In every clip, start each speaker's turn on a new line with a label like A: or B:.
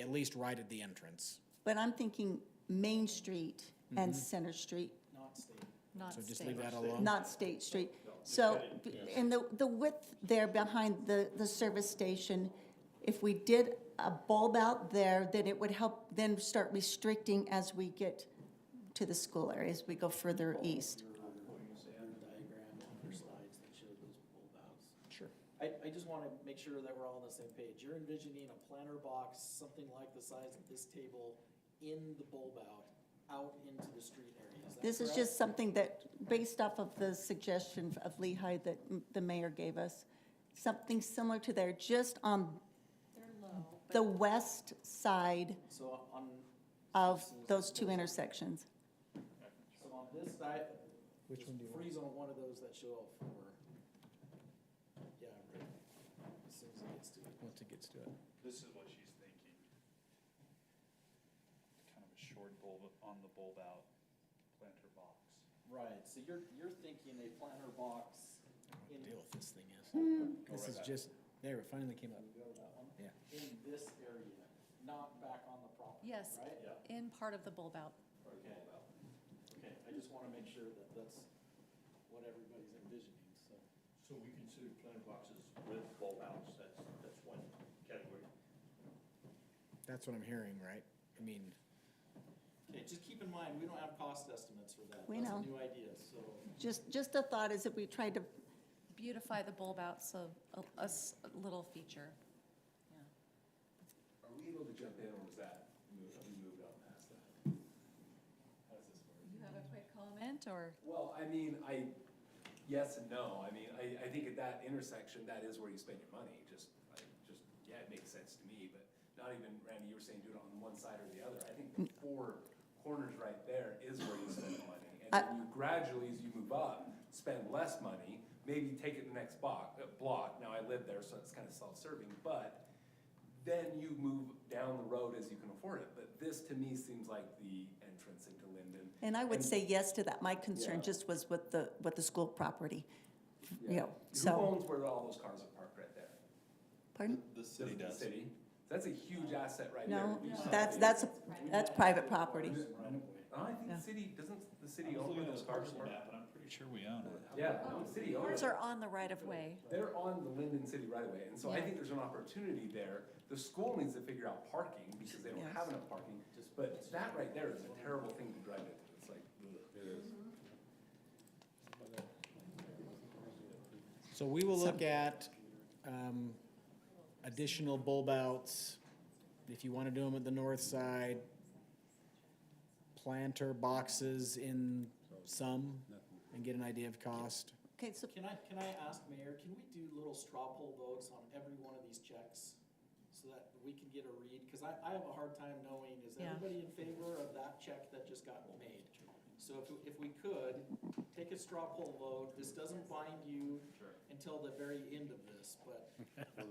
A: at least right at the entrance.
B: But I'm thinking Main Street and Center Street,
C: Not
A: So just
C: state.
A: leave that alone.
B: not State Street. So, and the, the width there behind the, the service station, if we did a bulb out there, then it would help then start restricting as we get to the school area, as we go further east.
A: Sure.
D: I, I just wanna make sure that we're all on the same page. You're envisioning a planter box, something like the size of this table, in the bulb out, out into the street area. Is that
B: This is
D: correct?
B: just something that, based off of the suggestion of Lehigh that m- the mayor gave us, something similar to there, just on the west side
D: So on,
B: of those two intersections.
D: so on this side, just freeze on one of those that show up for, yeah, right, as soon as it gets to it.
A: Once it gets to it.
E: This is what she's thinking. Kind of a short bulb, on the bulb out planter box.
D: Right, so you're, you're thinking a planter box in,
A: Deal with this thing is. This
E: right
A: is
E: back.
A: just, there, it finally came up. Yeah.
D: in this area, not back on the property, right?
C: Yes, in part of the bulb out.
D: Okay, okay, I just wanna make sure that that's what everybody's envisioning, so.
F: So we consider planter boxes with bulb outs, that's, that's one category.
A: That's what I'm hearing, right? I mean,
D: Okay, just keep in mind, we don't have cost estimates for that.
B: We know.
D: That's a new idea, so.
B: Just, just a thought is if we tried to,
C: Beautify the bulb out, so a- a s- a little feature.
E: Are we able to jump in, or was that, moved- we moved on past that? How does this work?
C: You have a quick comment, or?
E: Well, I mean, I, yes and no, I mean, I, I think at that intersection, that is where you spend your money, just, I, just, yeah, it makes sense to me, but not even, Randy, you were saying do it on one side or the other, I think the four corners right there is where you spend the money. And then you gradually, as you move up, spend less money, maybe take it the next block, uh, block, now I live there, so it's kind of self-serving, but then you move down the road as you can afford it, but this to me seems like the entrance into Linden.
B: and I would say yes to that. My concern just was with the, with the school property. You know,
E: Who
B: so,
E: owns where all those cars are parked right there?
B: pardon?
F: The
E: Does
F: city
E: the
F: does.
E: City? That's a huge asset right there.
B: No,
E: We just-
B: that's, that's, that's private property.
E: Oh, I think
B: Yeah.
E: the city, doesn't
F: I'm
E: the city own
F: looking
E: where
F: at this
E: those cars
F: parcel
E: are?
F: map, and I'm pretty sure we own it.
E: Yeah, no, the city owns
C: Ours
E: it.
C: are on the right of way.
E: They're on the Linden City right away, and so
C: Yeah.
E: I think there's an opportunity there. The school needs to figure out parking because they don't
B: Yes.
E: have enough parking, but that right there is a terrible thing to drive into. It's like, ugh.
A: so we will look at, um, additional bulb outs. If you want to do them at the north side, planter boxes in some and get an idea of cost.
B: Okay, so
D: Can I, can I ask, Mayor, can we do little straw poll votes on every one of these checks? So that we can get a read, cause I, I have a hard time knowing, is
C: Yeah.
D: everybody in favor of that check that just got made? So if, if we could, take a straw poll vote, this doesn't bind you until the very end of this, but
B: on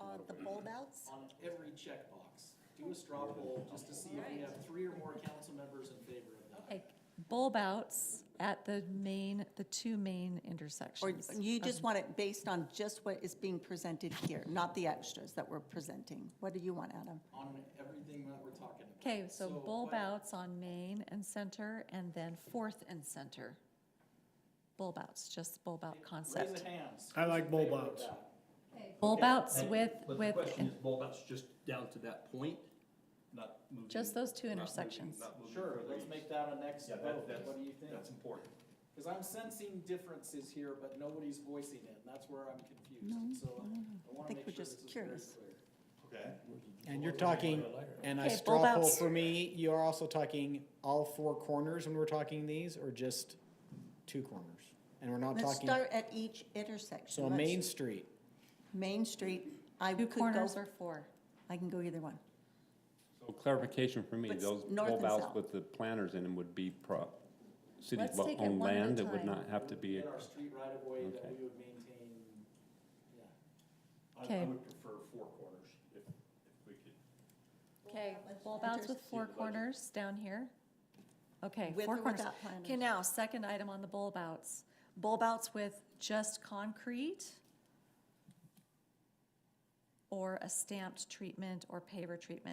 B: uh, the bulb outs,
D: on every checkbox, do a straw poll just to see if we have three or more council members in favor of that.
C: Okay, bulb outs at the main, the two main
B: or
C: intersections.
B: you just want it based on just what is being presented here, not the extras that we're presenting? What do you want, Adam?
D: On everything that we're talking about.
C: Okay, so bulb
D: what-
C: outs on Main and Center, and then Fourth and Center. Bulb outs, just bulb out
D: Raise
C: concept.
D: the hands.
G: I like
D: Who's in
G: bulb
D: favor of
G: outs.
D: that?
C: Bulb outs
F: And-
C: with,
F: But the
C: with,
F: question is bulb outs just down to that point, not moving.
C: Just those two
F: not moving-
C: intersections.
F: not moving
D: Sure,
F: further
D: let's
F: east.
D: make that a next
F: Yeah, that,
D: vote,
F: that's,
D: what do you think?
F: that's important.
D: Because I'm sensing differences here, but nobody's voicing it, and that's where I'm confused, so I want
B: think
D: to
B: we're
D: make sure this
B: just
D: is very
B: curious.
D: clear.
F: Okay.
A: And you're talking, and I
C: Okay, bulb
A: straw poll
C: outs.
A: for me, you're also talking all four corners when we're talking these, or just two corners? And we're not
B: Let's
A: talking,
B: start at each intersection.
A: so
B: Let's-
A: Main Street,
B: Main Street, I
C: two
B: could go,
C: corners or four.
B: I can go either one.
H: So clarification for me,
B: But s-
H: those
B: north
H: bulb
B: and
H: outs
B: south.
H: with the planters in them would be pro, cities
C: Let's take it
H: owned
C: one at a
H: land, it would
C: time.
H: not have to be,
D: In our street right of way that
H: Okay.
D: we would maintain, yeah.
F: I, I
C: Okay.
F: would prefer four corners if, if we could.
C: Okay, bulb outs with four
F: Yeah, the budget.
C: corners down here. Okay,
B: With
C: four
B: or
C: corners.
B: without planters?
C: Okay, now, second item on the bulb outs. Bulb outs with just concrete or a stamped treatment or paver treatment.